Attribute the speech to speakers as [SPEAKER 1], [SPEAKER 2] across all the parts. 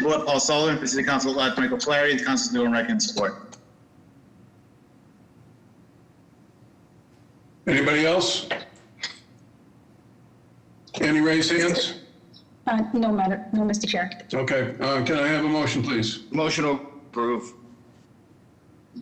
[SPEAKER 1] Board, Paul Sullivan, for City Council, elect Michael Flaherty, the Council's new and recommend support.
[SPEAKER 2] Anybody else? Any raised hands?
[SPEAKER 3] Uh, No matter, no, Mr. Chair.
[SPEAKER 2] Okay, uh, can I have a motion, please?
[SPEAKER 4] Motion to approve.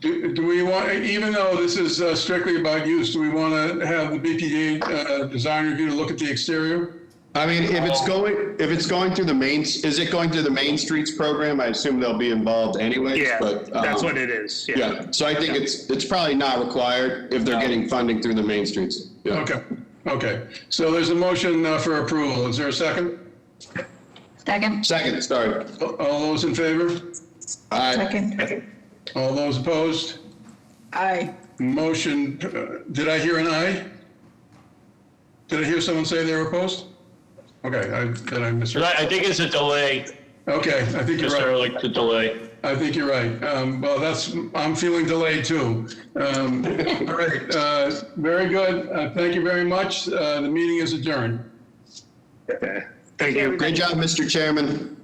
[SPEAKER 2] Do do we want, even though this is uh, strictly about use, do we want to have the BPD uh, design review to look at the exterior?
[SPEAKER 5] I mean, if
[SPEAKER 6] Oh.
[SPEAKER 5] it's going, if it's going through the main, is it going through the Main Streets program? I assume they'll be involved anyways,
[SPEAKER 6] Yeah,
[SPEAKER 5] but. um,
[SPEAKER 6] that's what it is. Yeah.
[SPEAKER 5] Yeah, so I think it's, it's probably not required if they're getting funding through the Main Streets. Yeah.
[SPEAKER 2] Okay, okay. So there's a motion uh, for approval. Is there a second?
[SPEAKER 3] Second.
[SPEAKER 5] Second, sorry.
[SPEAKER 2] All those in favor?
[SPEAKER 5] Aye.
[SPEAKER 3] Second.
[SPEAKER 2] All those opposed?
[SPEAKER 7] Aye.
[SPEAKER 2] Motion, uh, did I hear an aye? Did I hear someone say they were opposed? Okay, I- then I misheard.
[SPEAKER 8] I I think it's a delay,
[SPEAKER 2] Okay, I think you're
[SPEAKER 8] Mr.
[SPEAKER 2] right.
[SPEAKER 8] Ehrlich, the delay.
[SPEAKER 2] I think you're right. Um, well, that's, I'm feeling delayed too. Um, all right, uh, very good. Uh, thank you very much. Uh, the meeting is adjourned.
[SPEAKER 6] Thank you.
[SPEAKER 5] Great job, Mr. Chairman.